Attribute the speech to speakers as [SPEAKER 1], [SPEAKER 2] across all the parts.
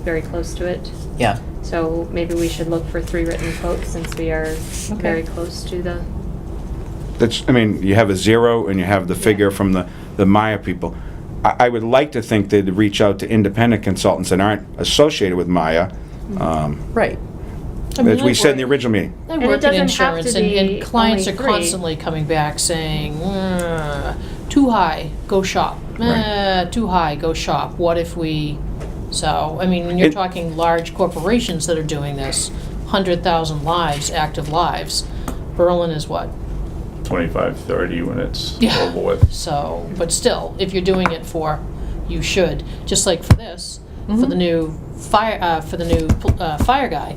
[SPEAKER 1] very close to it.
[SPEAKER 2] Yeah,
[SPEAKER 1] So maybe we should look for three written quotes since we are very close to the,
[SPEAKER 3] That's, I mean, you have a zero and you have the figure from the, the Maya people. I, I would like to think they'd reach out to independent consultants that aren't associated with Maya, um,
[SPEAKER 2] right.
[SPEAKER 4] Mm-hmm. I mean,
[SPEAKER 3] as we
[SPEAKER 4] I've
[SPEAKER 3] said in the
[SPEAKER 4] worked-
[SPEAKER 3] original meeting.
[SPEAKER 4] I
[SPEAKER 1] And it
[SPEAKER 4] work in
[SPEAKER 1] doesn't have to
[SPEAKER 4] insurance, and,
[SPEAKER 1] be
[SPEAKER 4] and clients are
[SPEAKER 1] only three.
[SPEAKER 4] constantly coming back saying, "Mm, too high, go shop.
[SPEAKER 3] Right.
[SPEAKER 4] Uh, too high, go shop. What if we, so, I mean, when you're
[SPEAKER 3] It-
[SPEAKER 4] talking large corporations that are doing this, 100,000 lives, active lives. Berlin is what?
[SPEAKER 5] 25, 30 when it's
[SPEAKER 4] Yeah.
[SPEAKER 5] over with.
[SPEAKER 4] So, but still, if you're doing it for, you should, just like for this, for the new fire, uh, for the new, uh, fire guy,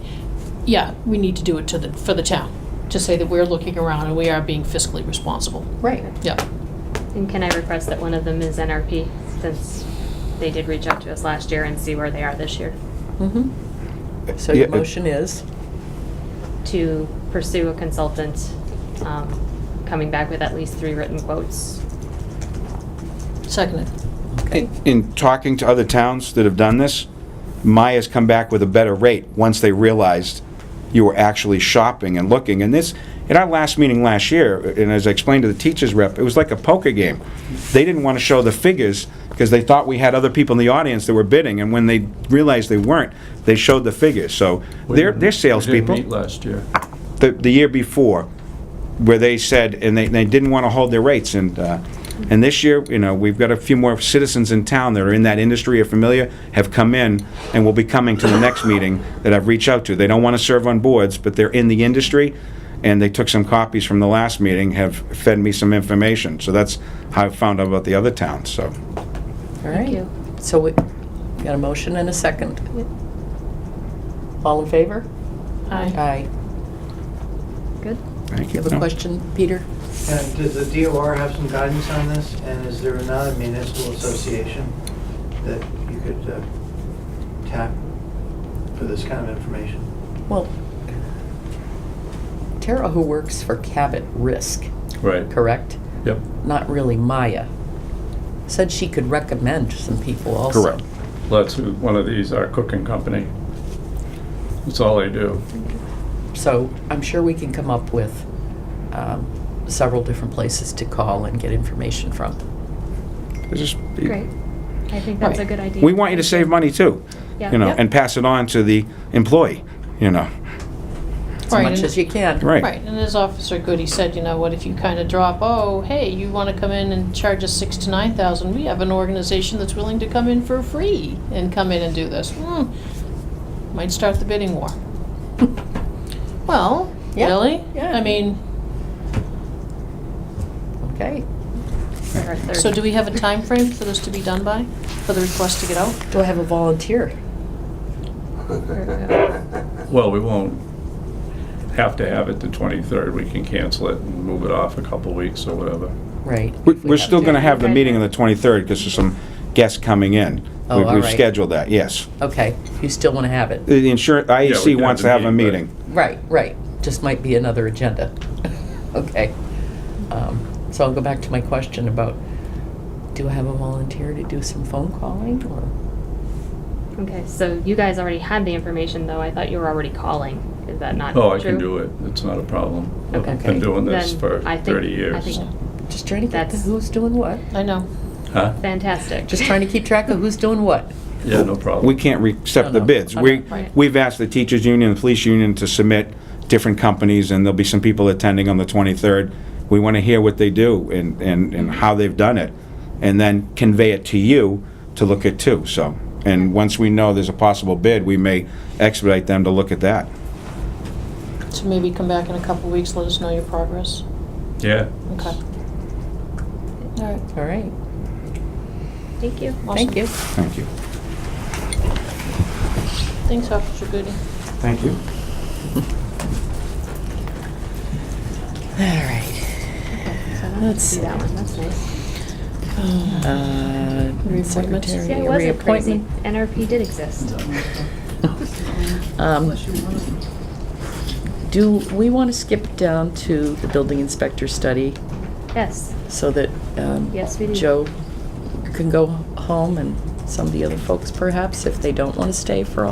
[SPEAKER 4] yeah, we need to do it to the, for the town, to say that we're looking around and we are being fiscally responsible.
[SPEAKER 2] Right.
[SPEAKER 4] Yeah,
[SPEAKER 1] and can I request that one of them is NRP since they did reach out to us last year and see where they are this year?
[SPEAKER 2] So your
[SPEAKER 3] Yeah, it-
[SPEAKER 2] motion is?
[SPEAKER 1] To pursue a consultant, um, coming back with at least three written quotes.
[SPEAKER 4] seconded.
[SPEAKER 2] Okay.
[SPEAKER 3] In talking to other towns that have done this, Maya's come back with a better rate once they realized you were actually shopping and looking. And this, in our last meeting last year, and as I explained to the teachers rep, it was like a poker game. They didn't want to show the figures because they thought we had other people in the audience that were bidding. And when they realized they weren't, they showed the figures. So
[SPEAKER 5] We
[SPEAKER 3] they're,
[SPEAKER 5] didn't-
[SPEAKER 3] they're
[SPEAKER 5] We
[SPEAKER 3] salespeople Ah,
[SPEAKER 5] didn't meet last year.
[SPEAKER 3] the, the year before, where they said, and they, they didn't want to hold their rates, and, uh, and this year, you know, we've got a few more citizens in town that are in that industry, are familiar, have come in, and will be coming to the next meeting that I've reached out to. They don't want to serve on boards, but they're in the industry, and they took some copies from the last meeting, have fed me some information, so that's how I found out about the other towns, so.
[SPEAKER 2] All right.
[SPEAKER 1] you.
[SPEAKER 2] So we got a motion and a second. All in favor?
[SPEAKER 4] Aye.
[SPEAKER 2] Aye.
[SPEAKER 1] Good?
[SPEAKER 3] Thank
[SPEAKER 2] You have a
[SPEAKER 3] No.
[SPEAKER 2] question, Peter?
[SPEAKER 6] And does the DOR have some guidance on this? And is there another municipal association that you could uh, tap for this kind of information?
[SPEAKER 2] Well, Tara, who works for Cabot Risk,
[SPEAKER 5] Right.
[SPEAKER 2] correct?
[SPEAKER 5] Yep.
[SPEAKER 2] Not really Maya, said she could recommend some people also.
[SPEAKER 3] Correct.
[SPEAKER 5] Let's, one of these, our cooking company. That's all they do.
[SPEAKER 2] So I'm sure we can come up with um, several different places to call and get information from.
[SPEAKER 3] This is-
[SPEAKER 1] Great. I think that's a
[SPEAKER 2] Right.
[SPEAKER 1] good idea.
[SPEAKER 3] We want you to save money too,
[SPEAKER 1] Yeah.
[SPEAKER 3] you know,
[SPEAKER 2] Yep.
[SPEAKER 3] and pass it on to the employee, you know,
[SPEAKER 2] As
[SPEAKER 4] Right,
[SPEAKER 2] much
[SPEAKER 4] and-
[SPEAKER 2] as you can.
[SPEAKER 3] right.
[SPEAKER 4] Right, and as Officer Goody said, you know, what if you kind of drop, oh, hey, you want to come in and charge us six to nine thousand? We have an organization that's willing to come in for free and come in and do this. Hmm, might start the bidding war. Well,
[SPEAKER 2] Yeah,
[SPEAKER 4] really?
[SPEAKER 2] yeah.
[SPEAKER 4] I mean,
[SPEAKER 2] Okay.
[SPEAKER 1] Our third-
[SPEAKER 4] so do we have a time frame for this to be done by, for the request to get out?
[SPEAKER 2] Do I have a volunteer?
[SPEAKER 5] Well, we won't have to have it the 23rd. We can cancel it and move it off a couple weeks or whatever.
[SPEAKER 2] Right.
[SPEAKER 3] We-
[SPEAKER 2] if we
[SPEAKER 3] We're
[SPEAKER 2] have
[SPEAKER 3] still
[SPEAKER 2] to.
[SPEAKER 3] going to have the
[SPEAKER 1] Okay.
[SPEAKER 3] meeting on the 23rd because there's some guests coming in.
[SPEAKER 2] Oh,
[SPEAKER 3] We-
[SPEAKER 2] all
[SPEAKER 3] We've
[SPEAKER 2] right.
[SPEAKER 3] scheduled that, yes.
[SPEAKER 2] Okay, you still want to have it?
[SPEAKER 3] The insurance, IAC
[SPEAKER 5] can have
[SPEAKER 3] wants to
[SPEAKER 5] the
[SPEAKER 3] have a
[SPEAKER 5] meeting,
[SPEAKER 3] meeting.
[SPEAKER 2] Right, right. Just might be another agenda. Okay. Um, So I'll go back to my question about, do I have a volunteer to do some phone calling or?
[SPEAKER 1] Okay, so you guys already had the information though. I thought you were already calling. Is that not true?
[SPEAKER 5] Oh, I can do it. It's not a problem. I've
[SPEAKER 2] Okay.
[SPEAKER 5] been doing this
[SPEAKER 1] Then
[SPEAKER 5] for
[SPEAKER 1] I think-
[SPEAKER 5] 30
[SPEAKER 1] I
[SPEAKER 5] years.
[SPEAKER 1] think-
[SPEAKER 2] Just trying to get
[SPEAKER 1] That's-
[SPEAKER 2] who's doing what?
[SPEAKER 4] I know.
[SPEAKER 5] Huh?
[SPEAKER 1] Fantastic.
[SPEAKER 2] Just trying to keep track of who's doing what.
[SPEAKER 5] Yeah, no problem.
[SPEAKER 3] We can't re- accept
[SPEAKER 2] Oh, No,
[SPEAKER 3] the
[SPEAKER 2] no.
[SPEAKER 3] bids.
[SPEAKER 2] Okay,
[SPEAKER 3] We,
[SPEAKER 1] right.
[SPEAKER 3] we've asked the teachers' union, the police union to submit different companies, and there'll be some people attending on the 23rd. We want to hear what they do and, and, and how they've done it, and then convey it to you to look at too, so. And once we know there's a possible bid, we may expedite them to look at that.
[SPEAKER 4] So maybe come back in a couple of weeks, let us know your progress.
[SPEAKER 5] Yeah.
[SPEAKER 4] Okay. All right,
[SPEAKER 2] All right,
[SPEAKER 1] Thank you.
[SPEAKER 2] thank you.
[SPEAKER 3] Thank you.
[SPEAKER 4] thanks, Officer Goody.
[SPEAKER 3] Thank you.
[SPEAKER 2] All right.
[SPEAKER 1] So I
[SPEAKER 2] Let's
[SPEAKER 1] see
[SPEAKER 2] see.
[SPEAKER 1] that one. That's nice.
[SPEAKER 2] Uh,
[SPEAKER 4] Reappointments.
[SPEAKER 2] Secretary,
[SPEAKER 1] Yeah, it wasn't crazy.
[SPEAKER 2] reappointment.
[SPEAKER 1] NRP did exist.
[SPEAKER 2] Um, Do we want to skip down to the building inspector study
[SPEAKER 1] Yes.
[SPEAKER 2] so that um,
[SPEAKER 1] Yes, we do.
[SPEAKER 2] Joe can go home and some of the other folks perhaps if they don't want to stay for all.